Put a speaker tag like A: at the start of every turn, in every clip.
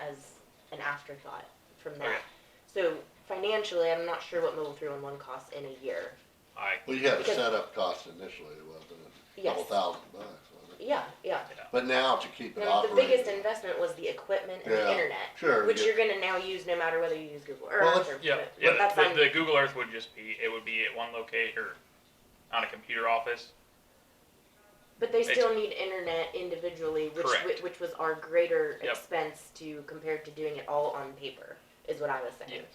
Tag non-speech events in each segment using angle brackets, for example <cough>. A: as an afterthought from that.
B: Okay.
A: So financially, I'm not sure what mobile three one one costs in a year.
B: I,
C: Well, you had a
A: Because-
C: setup cost initially, wasn't it? Couple
A: Yes.
C: thousand bucks, wasn't it?
A: Yeah, yeah.
C: But now to keep it
A: Now, the biggest
C: operating.
A: investment was the equipment and
C: Yeah,
A: the internet,
C: Sure.
A: which
C: you-
A: you're gonna now use no matter whether you use Google
C: Well,
A: Earth
C: let's-
A: or.
B: yeah,
A: but
B: yeah,
A: that's
B: the,
A: fine.
B: the Google Earth would just be, it would be at one location, or on a computer office,
A: But they still need internet individually, which
B: Correct.
A: which, which was our greater
B: Yep.
A: expense to compared to doing it all on paper, is what I was saying.
B: yes.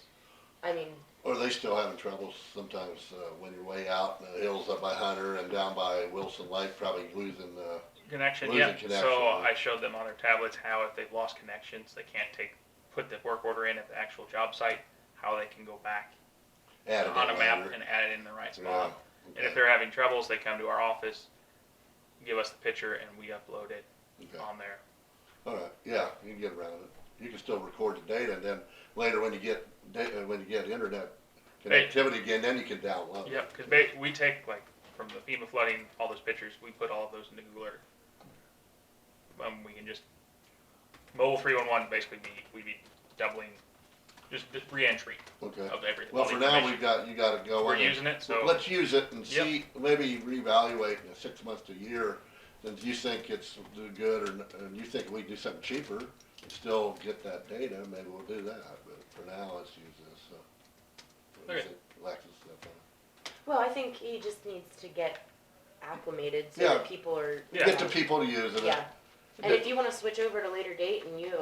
A: I mean,
C: Or they still having trouble sometimes, uh, when you're way out in the hills up by Hunter and down by Wilson Lake, probably losing, uh,
B: Connection,
C: Losing
B: yeah,
C: connection,
B: so
C: yeah.
B: I showed them on their tablets how if they've lost connections, they can't take, put the work order in at the actual job site, how they can go back
C: added
B: on a map
C: later.
B: and add it in the right
C: Yeah,
B: spot. And if
C: okay,
B: they're having troubles, they come to our office, give us the picture, and we upload it
C: okay.
B: on there.
C: All right, yeah, you can get around it. You can still record the data, and then later when you get, da- uh, when you get internet
B: Hey.
C: connectivity again, then you can download. it.
B: Yep, because ba- we take like from the FEMA flooding, all those pictures, we put all of those into Google Earth. Um, we can just mobile three one one basically be we'd be doubling just the re-entry
C: Okay.
B: of everything.
C: Well,
B: all the
C: for now, we've
B: information.
C: got, you gotta go
B: we're
C: in and
B: using it, so
C: Let's use it and
B: Yep.
C: see, maybe reevaluate in six months to a year, and you think it's do good or, n- and you think we can do something cheaper and still get that data, maybe we'll do that, but for now, let's use this, so. What do you
B: Okay.
C: think, Alexis, that one?
A: well, I think he just needs to get acclimated so
C: Yeah.
A: that people are.
B: Yeah.
C: Get the people to use it.
A: Yeah. And if you want to switch over to later date and you have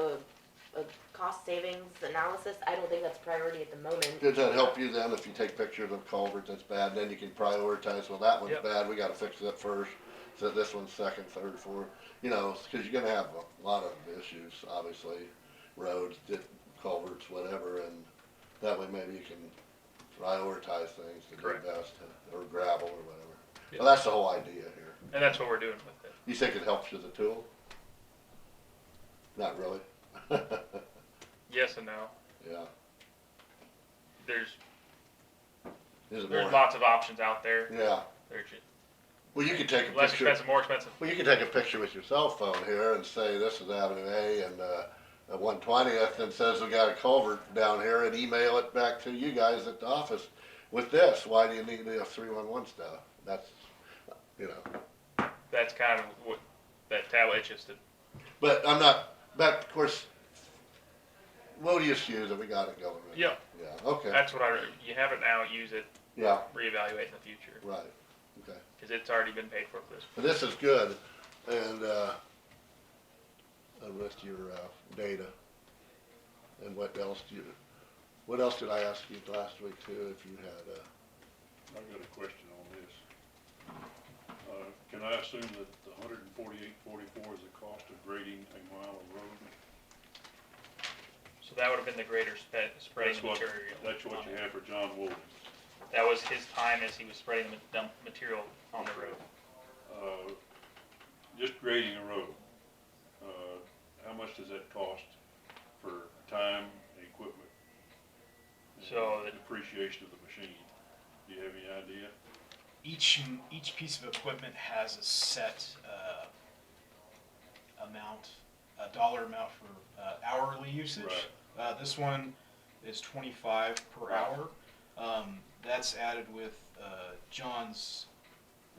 A: a, a cost savings analysis, I don't think that's priority at the moment.
C: Does that help you then, if you take pictures of culvert that's bad, then you can prioritize, well, that one's
B: Yep.
C: bad, we gotta fix it first, so this one's second, third, fourth, you know, cause you're gonna have a lot of issues, obviously, roads, di- culverts, whatever, and that way maybe you can prioritize things to do
B: Correct.
C: best, or gravel or whatever.
B: Yep.
C: Well, that's the whole idea here.
B: and that's what we're doing with it.
C: You think it helps you as a tool? Not really. <laughs> Yeah,
B: Yes and no. There's
C: is it
B: there's
C: more?
B: lots of options out there.
C: Yeah,
B: There's ju-
C: well, you could take a
B: less
C: picture.
B: expensive, more expensive.
C: Well, you can take a picture with your cell phone here and say, this is Avenue A and, uh, one twentieth and says we got a culvert down here and email it back to you guys at the office with this. Why do you need the three one one stuff? That's, you know,
B: That's kind of what that tablet it's just a
C: but I'm not, but of course, we'll just use it. We got it going. right?
B: Yeah. Uh,
C: Yeah, okay.
B: That's what I. You have it now. Use it.
C: Yeah,
B: Reevaluate in the future
C: right. Okay.
B: because it's already been paid for for this.
C: But this is good and, uh, the rest of your, uh, data. And what else do you, what else did I ask you last week too, if you had, uh,
D: I got a question on this. Uh, can I assume that the hundred and forty-eight forty-four is the cost of grading a mile of road?
B: So that would have been the greater spe- spreading
D: That's
B: the
D: what,
B: material.
D: that's what
B: on
D: you
B: it.
D: have for John Woolley.
B: That was his time as he was spreading the dump material on the road.
D: Uh, just grading a road, uh, how much does that cost for time and equipment? and
B: So that-
D: Depreciation of the machine, do you have any idea?
E: each each piece of equipment has a set uh, amount, a dollar amount for uh, hourly usage.
D: Right.
E: Uh, this one is 25 per
D: Right.
E: hour. Um, that's added with uh, John's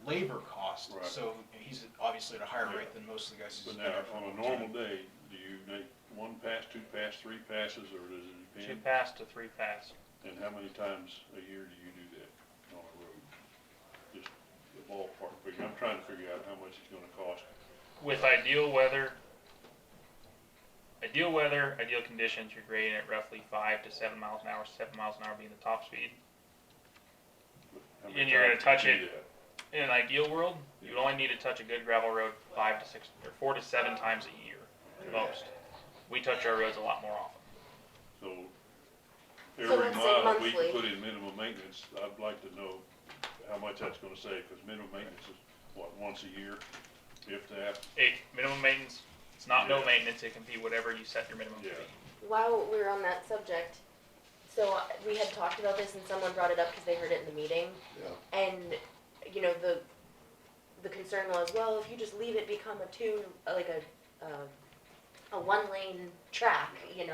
E: labor cost,
D: Right.
E: so he's obviously at a higher
D: Yeah.
E: rate than most of the guys. who's
D: But
E: been
D: now,
E: there for
D: on a
E: long time.
D: normal day, do you make one pass, two pass, three passes, or does it
B: Two
D: depend?
B: pass to three pass.
D: And how many times a year do you do that on a road? Just the ballpark figure, I'm trying to figure out how much it's gonna cost.
B: With ideal weather, ideal weather, ideal conditions, you're grading at roughly five to seven miles an hour. Seven miles an hour being the top speed.
D: How many
B: And you're gonna
D: times
B: touch
D: you
B: it.
D: do that?
B: In an ideal world, you'd only need to touch a good gravel road five to six or four to seven times a year, at most. We touch our roads a lot more often.
D: So,
A: let's
D: every
A: say
D: mile we
A: monthly.
D: can put in minimum maintenance, I'd like to know how much that's gonna save, cause minimum maintenance is, what, once a year, if that?
B: Hey, minimum maintenance. It's not no
D: Yeah.
B: maintenance. It can be whatever you set your minimum to
D: Yeah.
B: be.
A: While we're on that subject, so uh, we had talked about this and someone brought it up because they heard it in the meeting.
C: yeah,
A: And, you know, the, the concern was, well, if you just leave it become a two, like a, uh, a one lane track, you know,